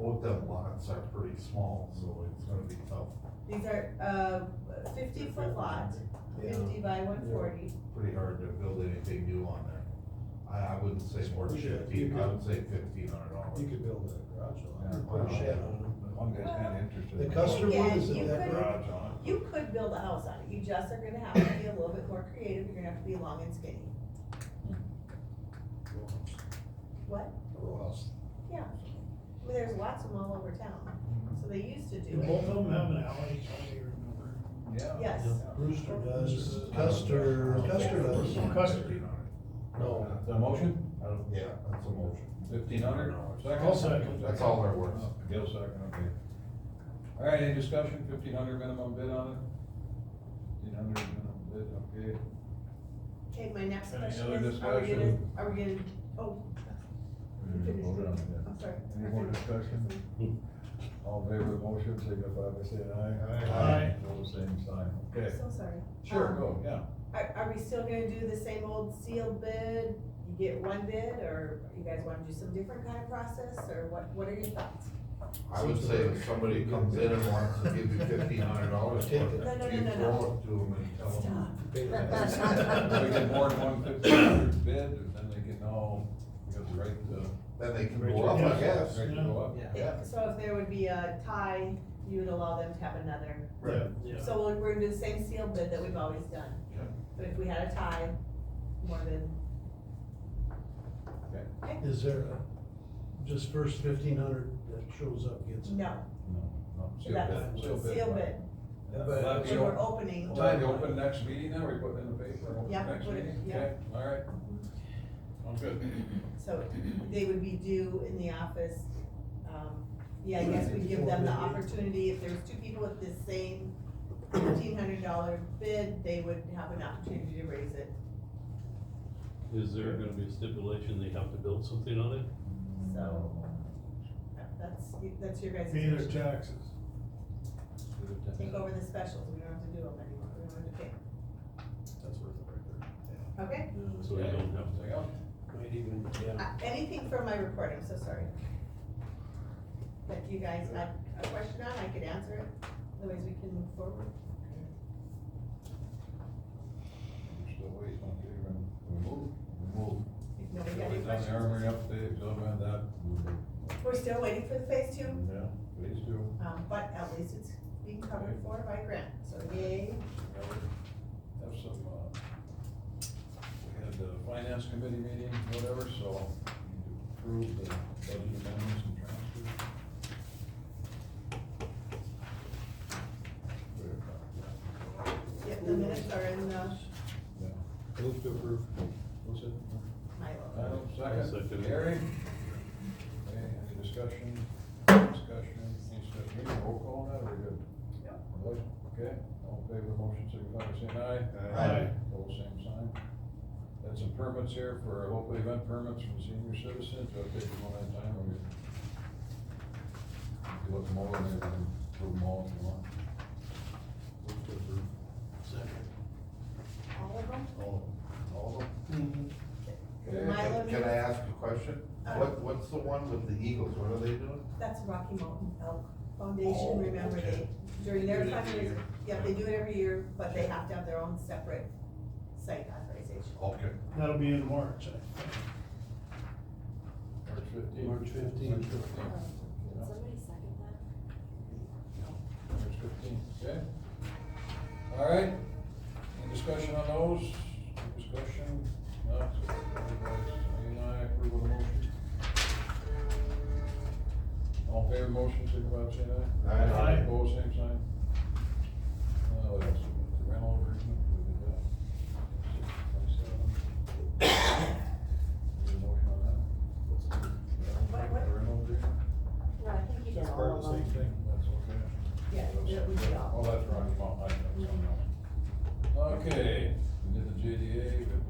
um, lots are pretty small, so it's gonna be tough, These are, uh, fifty foot lot, fifty by one forty. pretty hard to build anything new on there. I, I wouldn't say more than You could- fifteen, you I could- would say fifteen hundred You dollars. could build a garage on Yeah. it, put a shed on One guy's not interested. The customer Yeah, is you in that could- garage. Garage on it. You could build a house on it, you just are gonna have to be a little bit more creative, you're gonna have to be long and skinny. What? A row house. Yeah, I mean, there's lots of them all over town, so they used to Do do both it. of them have an alley, I do remember? Yeah. Yes, Brewster does, I don't- Custer, I don't Custer think Custer. does. there's more than Custer. 1500. No, The motion, I don't, yeah, that's a motion. fifteen hundred? I'll second. That's all there was. Gil second, okay. All right, any discussion, fifteen hundred minimum bid on it? Fifteen hundred minimum bid, okay. okay, my next Any question other is, are we gonna, discussion? are we gonna, oh, We voted on it, yeah. I'm sorry. Any more discussion? All in favor of the motion, signify by saying aye. Aye. All the same sign, I'm okay. so sorry. Sure, Um, go, yeah. Are, are we still gonna do the same old sealed bid, you get one bid, or you guys wanna do some different kind of process, or what, what are your thoughts? I would say if somebody comes in and wants to give you fifteen hundred dollars, you Take throw it. it No, no, to no, no, no. them and tell them. Stop. pay the If we get tax. more than one fifteen hundred bid, and then they can all, we have the right to. Then they can go up, I guess. Right to go up. Yeah. So if there would be a tie, you would allow them to have another, Right. Yeah. so we're, we're gonna do the same sealed bid that we've always done. Yeah. But if we had a tie, more than, Is there a- just first fifteen hundred that shows up gets it? no, No, no, seal that's bid, seal bid. sealed bid, Will that But- be and we're open- opening. will that be open next meeting now, we put it in the paper, open Yeah, next put it- meeting? yeah. Okay, all right. Sounds good. So they would be due in the office, um, yeah, I guess we give them the opportunity, if there's two people with the same fifteen hundred dollar bid, they would have an opportunity to raise it, Is there gonna be a stipulation they have to build something on it? so. That's, that's your guys' Pay their decision, taxes. take over the specials, we don't have to do them anymore, we don't have to pay. That's worth it right Okay, So we don't have to. Anything else? there. Might even, yeah. Uh, anything from my report, I'm so sorry. But you guys have a question on, I could answer it, otherwise we can move forward. We're still waiting, okay, then we move, we move. If nobody got any Always on the questions. armory update, don't mind that. We're still waiting for the phase two, Yeah, please do. um, but at least it's being covered for by grant, so yay. Yeah, we Have some, uh, we had the finance committee meeting, whatever, so we need to approve the budget amendments and transfers. Yep, the minutes are in the uh, Yeah. Move to approve. What's it? Milo. Adam, second. Second. Gary? Okay, any discussion? Discussion, any discussion, Any roll call on that, or we good? Yep. Yep. Okay, all in favor of the motion, signify by saying aye. Aye. Aye. All same sign. That's some permits here for local event permits from senior citizens, I'll take them all that time, or we you look them over, and then prove them all if you want. Move to approve. All of them? All, all of them? Mm-hmm. Can I- Milo Can I minutes? ask a question? Uh. What, what's the one with the Eagles, what are they doing? That's Rocky Mountain Elk Oh, Foundation, remember they, okay. during their Do it every fundraiser, year. yeah, they do it every year, but they have to have their own separate site authorization. Okay. That'll be in March, I think. March fifteenth. March 15th. March fifteenth. Can somebody second that? March fifteenth, okay? All right, any discussion on those? Any Discussion, no, so everybody's, you and I approve of the motion. All in favor of the motion, signify by saying aye. Aye. Aye. Opposed, same sign. Uh, what else, we got? the rental agreement, we did that. Any motion on that? What- what? The rental agreement? No, I think you did That's all part of of them. the same thing. That's okay. Yeah, yeah, we did all. Oh, that's right, well, I know, it's on that one. Okay, we did the JDA, we did